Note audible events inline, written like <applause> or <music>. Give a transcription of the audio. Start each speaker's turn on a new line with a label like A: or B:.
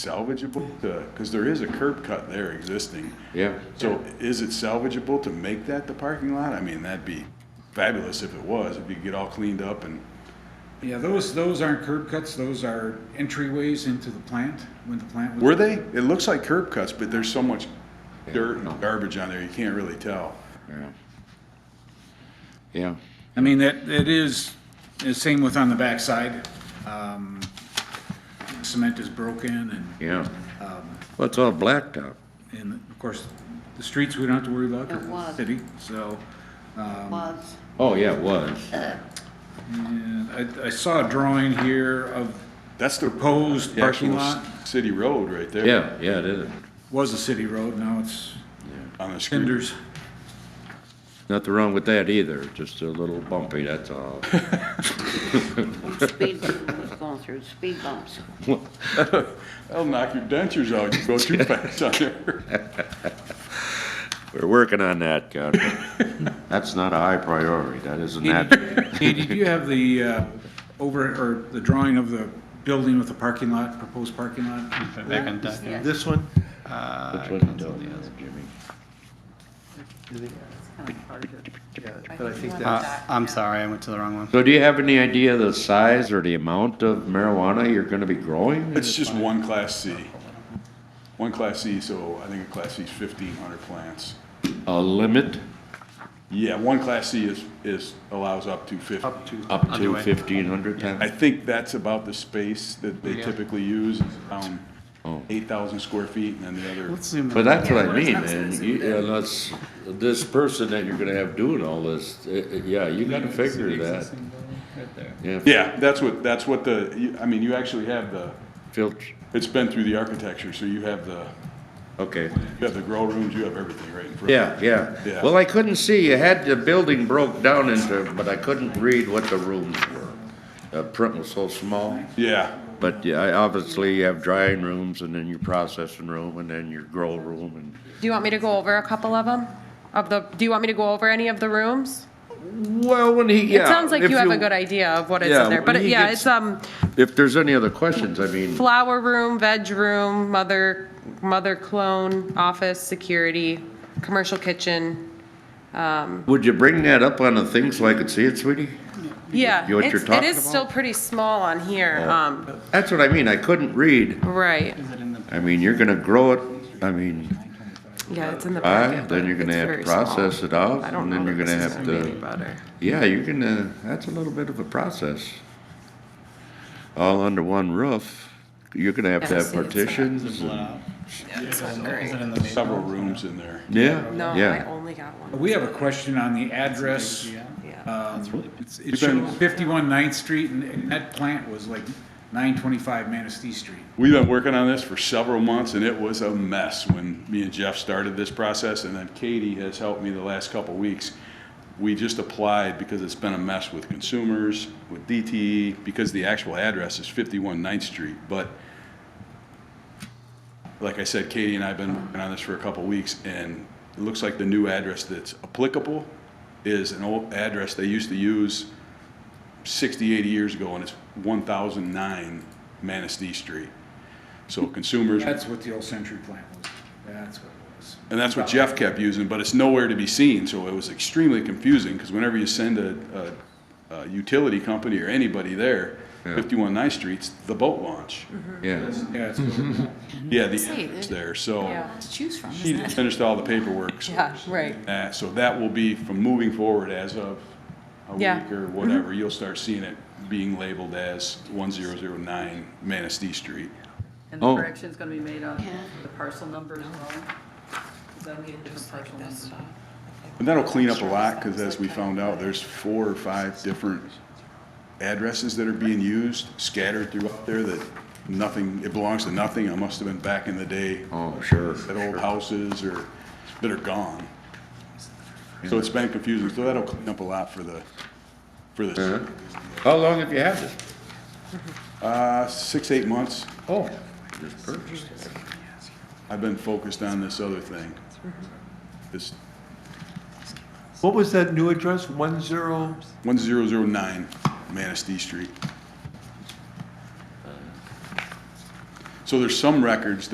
A: salvageable to, because there is a curb cut there existing.
B: Yeah.
A: So is it salvageable to make that the parking lot? I mean, that'd be fabulous if it was, if you could get all cleaned up and,
C: Yeah, those, those aren't curb cuts, those are entryways into the plant, when the plant was.
A: were they? It looks like curb cuts, but there's so much dirt and garbage on there, you can't really tell.
B: Yeah. Yeah.
C: I mean, that, it is, the same with on the backside. Um, Cement is broken
B: Yeah. Well, it's all blacktop.
C: and, and of course, the streets we don't have to worry about. 'cause
D: It
C: it's
D: was.
C: City, so,
D: was.
B: Oh, yeah, it was.
C: and I, I saw a drawing here of
A: That's the.
C: proposed
A: the actual
C: parking lot,
A: c- City road right there.
B: Yeah, yeah, it is.
C: was a city road, now it's
A: On the street.
C: cinders.
B: Nothing wrong with that either, just a little bumpy, that's all.
D: Speed, was going through speed bumps.
A: That'll knock your dentures out, you go too fast on there.
B: <laughs> We're working on that, God. <laughs> That's not a high priority, that isn't that.
C: Katie, do you have the, uh, over, or the drawing of the building with the parking lot, proposed parking lot?
E: Back on top.
D: Yeah.
F: This one?
B: Which one you doing, uh, Jimmy?
F: Yeah, But I think that's,
E: Uh, I'm sorry, I went to the wrong one.
B: So do you have any idea the size or the amount of marijuana you're gonna be growing?
A: It's just one class C. One class C, so I think a class C is fifteen hundred plants.
B: A limit
A: Yeah, one class C is, is, allows up to fifty.
F: up to,
B: up to
E: Underway.
B: fifteen hundred times?
A: I think that's about the space that they
E: Yeah.
A: typically use, is around
B: Oh.
A: eight thousand square feet, and then the other,
E: Let's zoom
B: But
E: in.
B: that's what I mean, and you, unless, this person that you're gonna have doing all this, uh, uh, yeah, you gotta figure that. Yeah,
A: yeah, that's what, that's what the, you- I mean, you actually have the,
B: filter,
A: it's been through the architecture, so you have the,
B: okay.
A: you have the grow rooms, you have everything right in front.
B: Yeah, yeah.
A: Yeah.
B: Well, I couldn't see, you had, the building broke down into, but I couldn't read what the rooms were. The print was so small,
A: Yeah,
B: but yeah, I- obviously you have drying rooms and then your processing room and then your grow room and
G: Do you want me to go over a couple of them? Of the, do you want me to go over any of the rooms?
B: Well, when he, yeah.
G: It sounds like
B: if
G: you have a good idea of what is
B: Yeah,
G: in there, but
B: when
G: it-
B: he
G: yeah,
B: gets-
G: it's, um,
B: If there's any other questions, I mean,
G: flower room, veg room, mother, mother clone, office, security, commercial kitchen.
B: would you bring that up on the thing so I could see it, sweetie?
G: Yeah,
B: You know what
G: it's-
B: you're
G: it is
B: talking
G: still
B: about?
G: pretty small on here, um,
B: That's what I mean, I couldn't read.
G: right,
E: Is it in the-
B: I mean, you're gonna grow it, I mean,
G: yeah, it's in the
B: I,
G: packet.
B: then you're
G: but
B: gonna
G: it's
B: have to
G: very small.
B: process it out,
G: I don't
B: and
G: know
B: then
G: that
B: you're gonna
G: this is
B: have
G: gonna be any
B: to,
G: better.
B: yeah, you're gonna, that's a little bit of a process. All under one roof, you're gonna have to
G: Yeah,
B: have
G: see, it's not-
B: partitions,
E: Split
B: and-
E: out.
G: It's not
E: Is
G: great.
E: it in the main?
A: several rooms in there.
G: No,
B: yeah,
G: I
B: yeah.
G: only got one,
C: We have a question on the address.
E: Yeah.
G: yeah.
C: Um, it's- It
A: You've been-
C: shows 51 Ninth Street, and- and that plant was like 925 Manistee Street.
A: We've been working on this for several months, and it was a mess when me and Jeff started this process, and then Katie has helped me the last couple weeks. We just applied because it's been a mess with consumers, with DTE, because the actual address is 51 Ninth Street, but like I said, Katie and I have been working on this for a couple weeks, and it looks like the new address that's applicable is an old address they used to use 60, 80 years ago, and it's 1009 Manistee Street. So consumers,
C: That's what the old Century plant was. That's what it was.
A: and that's what Jeff kept using, but it's nowhere to be seen, so it was extremely confusing, because whenever you send a, a, a utility company or anybody there, 51 Ninth Street's the boat launch.
G: Mm-hmm.
B: Yeah.
C: Yeah, it's what-
A: Yeah, the address there, so
G: Yeah,
H: choose from,
A: she finished all the paperwork. so-
G: yeah, right.
A: Uh, so that will be from moving forward as of a
G: Yeah. Mm-hmm.
A: week or whatever, you'll start seeing it being labeled as 1009 Manistee Street.
I: And the
B: Oh.
I: correction's gonna be made on the parcel number as well? 'Cause that'll be a different parcel number.
A: And that'll clean up a lot, because as we found out, there's four or five different addresses that are being used, scattered throughout there, that nothing, it belongs to nothing, it must have been back in the day,
B: Oh, sure,
A: that old houses or, that are gone. So it's been confusing, so that'll clean up a lot for the, for this,
B: Uh-huh. How long have you had this?
A: uh, six, eight months.
B: Oh, just purchased.
A: I've been focused on this other thing. This
F: what was that new address, one zero?
A: one zero zero nine Manistee Street. So there's some records